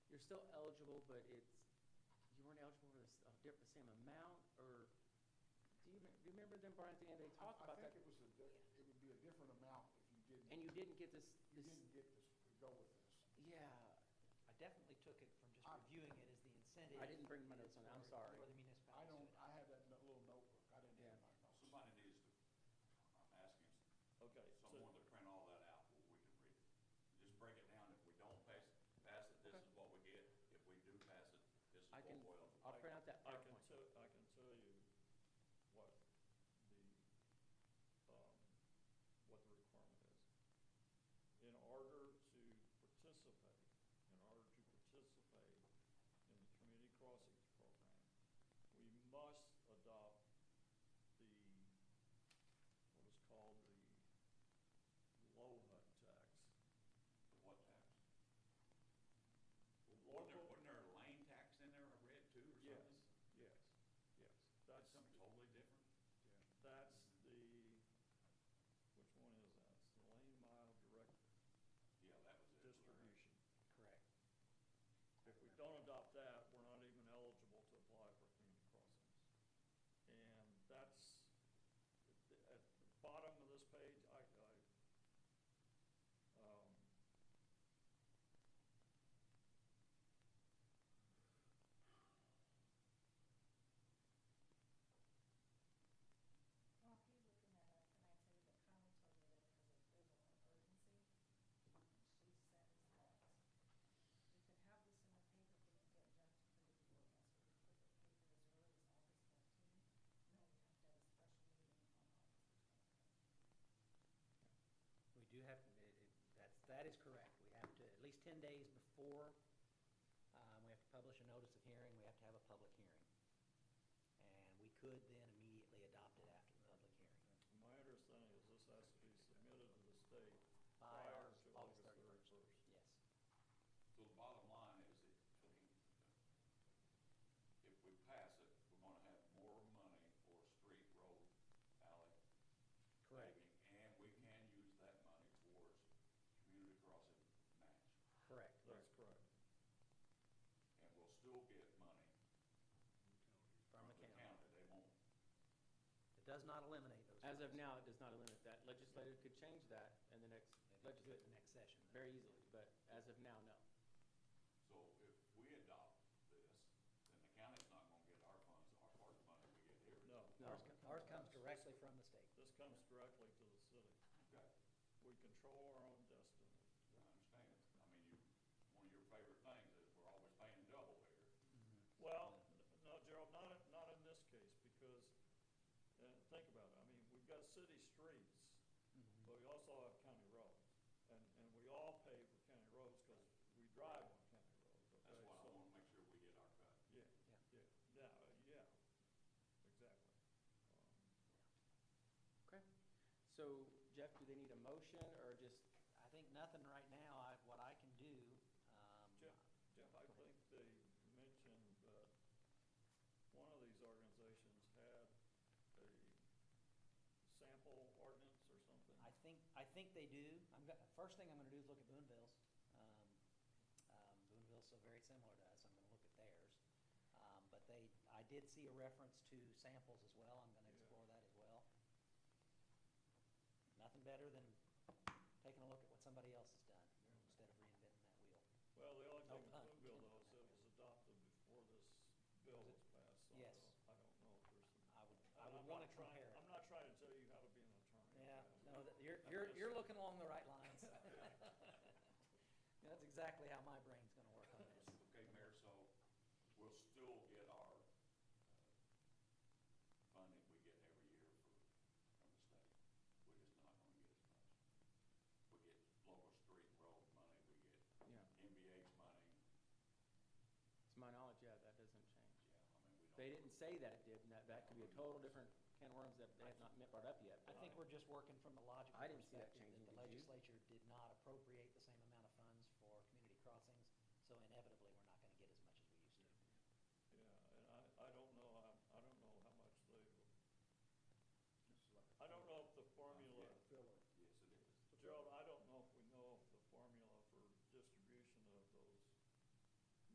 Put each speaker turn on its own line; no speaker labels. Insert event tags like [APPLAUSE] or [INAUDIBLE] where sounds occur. still eligible, but it's, you weren't eligible for the, s- uh, diff- the same amount, or, do you, me- do you remember them, Brian, at the end, they talked about
I
that?
think it was a, di- it would be a different amount if you
And
didn't,
you didn't get this,
you
this,
didn't get this, to go with this.
yeah,
I definitely took it from just
I-
reviewing it as the incentive.
I didn't bring my notes on that, I'm
for-
sorry.
For the
I
municipalities. to
don't,
adopt.
I had that no- little notebook, I didn't
Yeah.
have my notes.
Somebody needs to, I'm asking
Okay,
someone
so,
to print all that out where we can read it. Just break it down, if we don't pass, pass it, this is what we get, if we do pass it, this is
I
what
can,
we'll.
I'll print out that
I can
PowerPoint.
tell, I can tell you um, what the, um, what the requirement is. In order to participate, in order to participate in the community crossings program, we must adopt the, what is called the low hut tax.
What tax? Wasn't there, wasn't there a lane tax in there, I read too, or something?
Yes, yes, yes.
That's
That's,
something totally different.
Yeah, That's the, which one is that? It's the lane mile direct
Yeah, that was it.
distribution.
Correct.
If we don't adopt that, we're not even eligible to apply for community crossings. And that's, at the bottom of this page, I, I, um,
Well, he's looking at it, and I said the comments on it because it is an urgency. And She says that we could have this in the paper, but it get jumped for the board, that's what we put the paper as early as August fourteen. No, we have to have a special meeting on August twenty-fifth.
We do have, it- it- that's, that is correct. We have to, at least 10 days before, um, we have to publish a notice of hearing, we have to have a public hearing. And we could then immediately adopt it after the public hearing.
my understanding is this has to be submitted to the state
By
prior to August
August
thirty-first.
31st. Yes.
So the bottom line is that, I mean, if we pass it, we're gonna have more money for street, road, alley.
Correct.
paving, And we can use that money towards community crossing match.
Correct.
That's correct.
And we'll still get money
From the county.
county. They won't,
It does not eliminate those.
As of
funds.
now, it does not eliminate that. Legislative could change that in the next
They could do it
legislative,
the next session. though.
very easily, but as of now, no.
so if we adopt this, then the county's not gonna get our funds, our part of the money we get here.
No,
No.
Ours co- Ours comes directly from the state.
this comes directly to the city.
Okay,
We control our own destiny.
I understand. I mean, you, one of your favorite things is we're always paying double here.
Well, no, Gerald, not, not in this case, because, uh, think about it, I mean, we've got city streets, but we also have county roads. And, and we all pay for county roads because we drive on county roads, okay?
That's why I
So-
wanna make sure we get our cut.
Yeah,
Yeah.
yeah, yeah, uh, yeah, exactly. Um,
Okay. So Jeff, do they need a motion or just,
I think nothing right now, I, what I can do, um.
Jeff, Jeff, I
Go ahead.
think they mentioned that one of these organizations had a sample ordinance or something.
I think, I think they do. I'm, go- first thing I'm gonna do is look at Boonville's. Um, um, Boonville's so very similar to us, I'm gonna look at theirs. Um, but they, I did see a reference to samples as well, I'm gonna
Yeah.
explore that as well. Nothing better than taking a look at what somebody else has done, instead of reinventing that wheel.
Well, the only thing
No pun
with Boonville though is
intended.
it was adopted before this bill
Was
was
it?
passed, so I
Yes.
don't, I don't know if there's some.
I would-
and
I would
I'm
wanna
not trying-
compare it.
I'm not trying to tell you how to be an attorney.
Yeah,
okay?
no, that- you're,
I'm
you're,
just-
you're looking along the right lines. [LAUGHS] That's exactly how my brain's gonna work on this.
Okay, Mayor, so we'll still get our uh, funding we get every year for, from the state. We're just not gonna get as much. We get local street road money, we get
Yeah.
NBH money,
to my knowledge, yeah, that doesn't change.
yeah, I mean, we don't.
They didn't say that it did, and that, that could be a total different can of worms that they have not met- brought up yet.
I think we're just working from the logical
I didn't see that
perspective that
changing, did
the
you?
legislature did not appropriate the Oh,